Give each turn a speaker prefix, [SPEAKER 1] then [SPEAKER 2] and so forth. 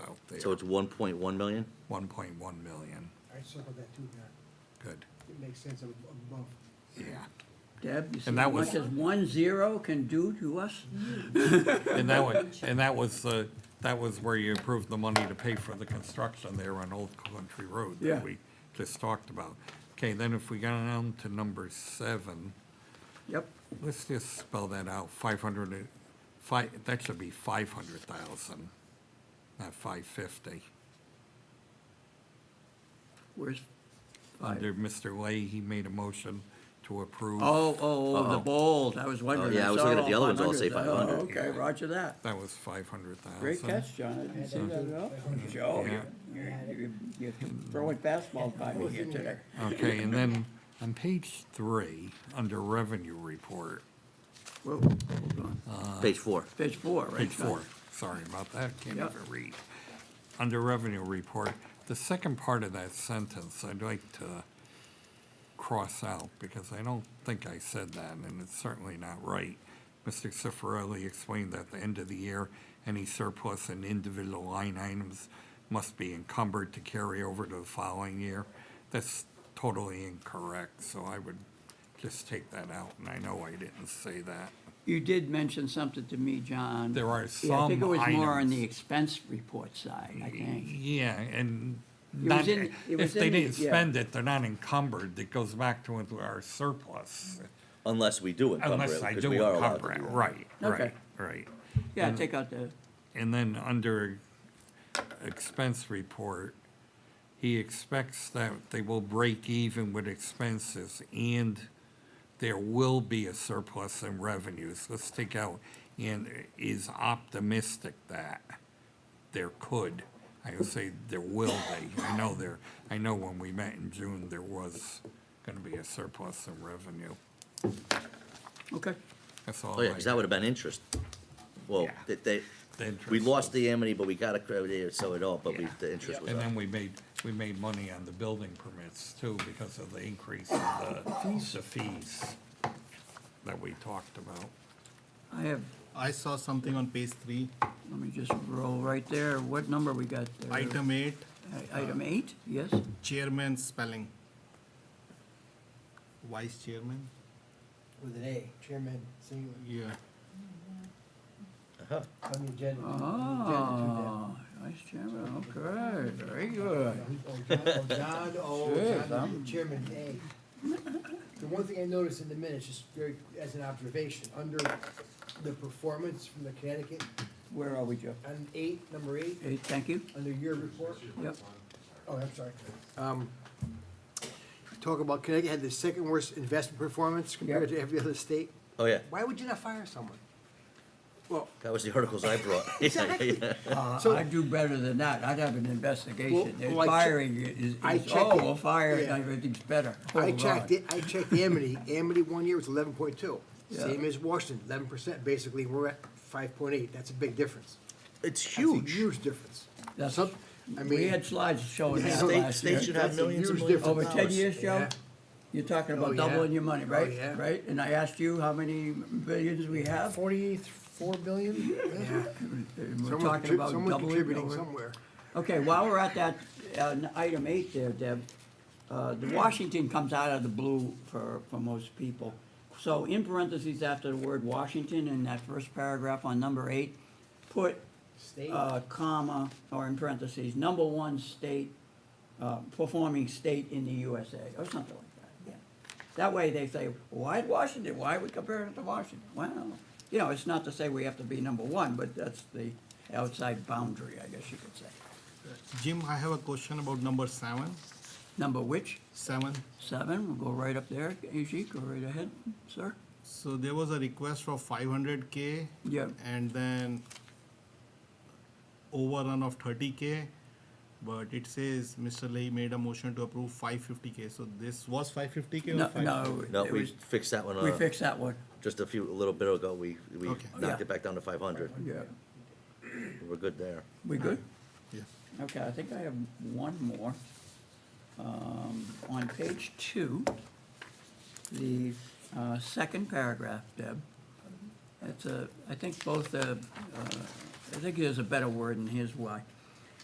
[SPEAKER 1] there.
[SPEAKER 2] So it's one point one million?
[SPEAKER 1] One point one million,
[SPEAKER 3] I circled that too, Mayor.
[SPEAKER 1] good,
[SPEAKER 3] It makes sense ab- above.
[SPEAKER 1] yeah.
[SPEAKER 4] Deb, you see
[SPEAKER 1] And
[SPEAKER 4] how
[SPEAKER 1] that was-
[SPEAKER 4] much as one zero can do to us?
[SPEAKER 2] Mm-hmm.
[SPEAKER 1] And that was, and that was, uh, that was where you approved the money to pay for the construction there on Old Country Road
[SPEAKER 4] Yeah.
[SPEAKER 1] that we just talked about. Okay, then if we got down to number seven,
[SPEAKER 4] Yep,
[SPEAKER 1] let's just spell that out, five hundred, five, that should be five hundred thousand, not five fifty.
[SPEAKER 4] where's five?
[SPEAKER 1] Under Mr. Lay, he made a motion to approve.
[SPEAKER 4] Oh, oh, oh, the
[SPEAKER 2] Uh-oh.
[SPEAKER 4] bold, I was wondering.
[SPEAKER 2] Oh, yeah, I was
[SPEAKER 4] saw
[SPEAKER 2] looking at the
[SPEAKER 4] all
[SPEAKER 2] other ones, all say
[SPEAKER 4] 500s.
[SPEAKER 2] 500.
[SPEAKER 4] Oh, Okay, roger that.
[SPEAKER 1] That was five hundred thousand.
[SPEAKER 4] Great catch, John, I didn't see that at all. Joe,
[SPEAKER 1] Yeah.
[SPEAKER 4] you're, you're, you're throwing fastball by me here today.
[SPEAKER 1] Okay, and then on page three, under revenue report,
[SPEAKER 4] Whoa, hold on.
[SPEAKER 2] Page four.
[SPEAKER 4] Page four, right?
[SPEAKER 1] page
[SPEAKER 4] John?
[SPEAKER 1] four, sorry about that, can't
[SPEAKER 4] Yeah.
[SPEAKER 1] even read. Under revenue report, the second part of that sentence, I'd like to cross out because I don't think I said that, and it's certainly not right. Mr. Cifarelli explained that at the end of the year, any surplus in individual line items must be encumbered to carry over to the following year. That's totally incorrect, so I would just take that out, and I know I didn't say that.
[SPEAKER 4] You did mention something to me, John.
[SPEAKER 1] There are
[SPEAKER 4] Yeah, I think it
[SPEAKER 1] some
[SPEAKER 4] was more on
[SPEAKER 1] items. Mm-hmm.
[SPEAKER 4] the expense report side, I think.
[SPEAKER 1] Yeah, and
[SPEAKER 4] was
[SPEAKER 1] not,
[SPEAKER 4] in- it
[SPEAKER 1] if
[SPEAKER 4] was
[SPEAKER 1] they
[SPEAKER 4] in the-
[SPEAKER 1] didn't
[SPEAKER 4] yeah.
[SPEAKER 1] spend it, they're not encumbered, it goes back to our surplus.
[SPEAKER 2] Unless we do encumber it,
[SPEAKER 1] Unless I
[SPEAKER 2] because
[SPEAKER 1] do
[SPEAKER 2] we are allowed to
[SPEAKER 1] encumber it,
[SPEAKER 2] do that.
[SPEAKER 1] right, right,
[SPEAKER 4] Okay.
[SPEAKER 1] right.
[SPEAKER 4] Yeah, take out the,
[SPEAKER 1] And then under expense report, he expects that they will break even with expenses and there will be a surplus in revenues. Let's take out, and is optimistic that there could. I would say there will be. I know there, I know when we met in June, there was gonna be a surplus in revenue.
[SPEAKER 4] okay.
[SPEAKER 1] That's all.
[SPEAKER 2] Oh, yeah,
[SPEAKER 1] I-
[SPEAKER 2] because that would have been interest. Well,
[SPEAKER 1] Yeah.
[SPEAKER 2] that they,
[SPEAKER 1] The
[SPEAKER 2] we
[SPEAKER 1] interest.
[SPEAKER 2] lost the amity, but we got a credit, so it all, but we,
[SPEAKER 1] Yeah.
[SPEAKER 2] the interest was
[SPEAKER 1] And
[SPEAKER 2] up.
[SPEAKER 1] then we made, we made money on the building permits too because of the increase in the, the fees that we talked about.
[SPEAKER 4] I have,
[SPEAKER 5] I saw something on page three,
[SPEAKER 4] let me just roll right there. What number we got there?
[SPEAKER 5] item eight,
[SPEAKER 3] Uh,
[SPEAKER 4] I- Item eight, yes?
[SPEAKER 5] chairman spelling. Vice chairman?
[SPEAKER 3] With an A, chairman, singular.
[SPEAKER 5] Yeah.
[SPEAKER 3] On the agenda. on
[SPEAKER 4] Oh, vice chairman, okay, very
[SPEAKER 3] the
[SPEAKER 4] good.
[SPEAKER 3] agenda to do that. Oh, John, oh,
[SPEAKER 4] Sure,
[SPEAKER 3] John, oh,
[SPEAKER 4] I'm-
[SPEAKER 3] John, chairman, A. The one thing I noticed in the minutes, just very, as an observation, under the performance from the Connecticut,
[SPEAKER 4] Where are we, Joe?
[SPEAKER 3] on eight, number eight,
[SPEAKER 4] Eight, thank you.
[SPEAKER 3] under your report.
[SPEAKER 4] Yep,
[SPEAKER 3] Oh, I'm sorry. Um, Talk about Connecticut had the second worst investment performance compared to every other state.
[SPEAKER 2] Oh, yeah,
[SPEAKER 3] Why would you not fire someone? Well,
[SPEAKER 2] that was the articles I brought. Yeah,
[SPEAKER 3] Exactly.
[SPEAKER 2] yeah.
[SPEAKER 4] Uh,
[SPEAKER 3] So-
[SPEAKER 4] I'd do better than that. I'd have an investigation.
[SPEAKER 3] Well,
[SPEAKER 4] It's
[SPEAKER 3] well, I che-
[SPEAKER 4] Firing is,
[SPEAKER 3] I
[SPEAKER 4] is,
[SPEAKER 3] check
[SPEAKER 4] oh,
[SPEAKER 3] it.
[SPEAKER 4] well, firing,
[SPEAKER 3] Yeah.
[SPEAKER 4] everything's better.
[SPEAKER 3] I
[SPEAKER 4] Hold
[SPEAKER 3] checked
[SPEAKER 4] on.
[SPEAKER 3] it, I checked Amity, Amity one year was eleven point two,
[SPEAKER 4] Yeah.
[SPEAKER 3] same as Washington, eleven percent, basically, we're at five point eight, that's a big difference.
[SPEAKER 2] It's
[SPEAKER 3] That's a
[SPEAKER 2] huge.
[SPEAKER 3] Huge difference.
[SPEAKER 4] That's-
[SPEAKER 3] Some- I
[SPEAKER 4] We
[SPEAKER 3] mean,
[SPEAKER 4] had slides showing
[SPEAKER 3] Yeah.
[SPEAKER 4] that
[SPEAKER 3] State-
[SPEAKER 4] last
[SPEAKER 2] state
[SPEAKER 4] year.
[SPEAKER 2] should have
[SPEAKER 3] that's a
[SPEAKER 2] millions and
[SPEAKER 3] huge
[SPEAKER 2] millions of
[SPEAKER 3] difference.
[SPEAKER 4] Over ten years, Joe,
[SPEAKER 3] Yeah.
[SPEAKER 4] you're talking
[SPEAKER 3] Oh,
[SPEAKER 4] about
[SPEAKER 3] yeah.
[SPEAKER 4] doubling your money,
[SPEAKER 3] Oh,
[SPEAKER 4] right?
[SPEAKER 3] yeah.
[SPEAKER 4] Right? And I asked you how many billions we have?
[SPEAKER 3] Forty-four billion? Yeah.
[SPEAKER 4] And We're
[SPEAKER 3] Someone
[SPEAKER 4] talking
[SPEAKER 3] contrib-
[SPEAKER 4] about
[SPEAKER 3] Someone
[SPEAKER 4] doubling
[SPEAKER 3] contributing
[SPEAKER 4] over.
[SPEAKER 3] somewhere.
[SPEAKER 4] Okay, while we're at that, uh, item eight there, Deb, uh, the Washington comes out of the blue for, for most people. So in parentheses after the word Washington in that first paragraph on number eight, put,
[SPEAKER 3] State.
[SPEAKER 4] uh, comma, or in parentheses, number one state, uh, performing state in the USA, or something like that, yeah. That way they say, why Washington, why are we comparing it to Washington? Well, you know, it's not to say we have to be number one, but that's the outside boundary, I guess you could say.
[SPEAKER 5] Jim, I have a question about number seven,
[SPEAKER 4] Number which?
[SPEAKER 5] seven.
[SPEAKER 4] Seven, we'll go right up there, Ajik, go right ahead, sir.
[SPEAKER 5] So there was a request for five hundred K.
[SPEAKER 4] Yeah.
[SPEAKER 5] And then overrun of thirty K, but it says Mr. Lay made a motion to approve five fifty K, so this was five fifty K or
[SPEAKER 4] No,
[SPEAKER 5] five?
[SPEAKER 4] no.
[SPEAKER 2] No,
[SPEAKER 4] it
[SPEAKER 2] we
[SPEAKER 4] was-
[SPEAKER 2] fixed that one,
[SPEAKER 4] We
[SPEAKER 2] uh,
[SPEAKER 4] fixed that one,
[SPEAKER 2] just a few, a little bit ago, we, we
[SPEAKER 5] Okay.
[SPEAKER 2] knocked
[SPEAKER 4] Yeah.
[SPEAKER 2] it back down to five hundred.
[SPEAKER 4] yeah.
[SPEAKER 2] We're good there.
[SPEAKER 4] We good?
[SPEAKER 5] Yeah.
[SPEAKER 4] Okay, I think I have one more. Um, On page two, the uh, second paragraph, Deb, it's a, I think both, uh, uh, I think there's a better word, and here's why.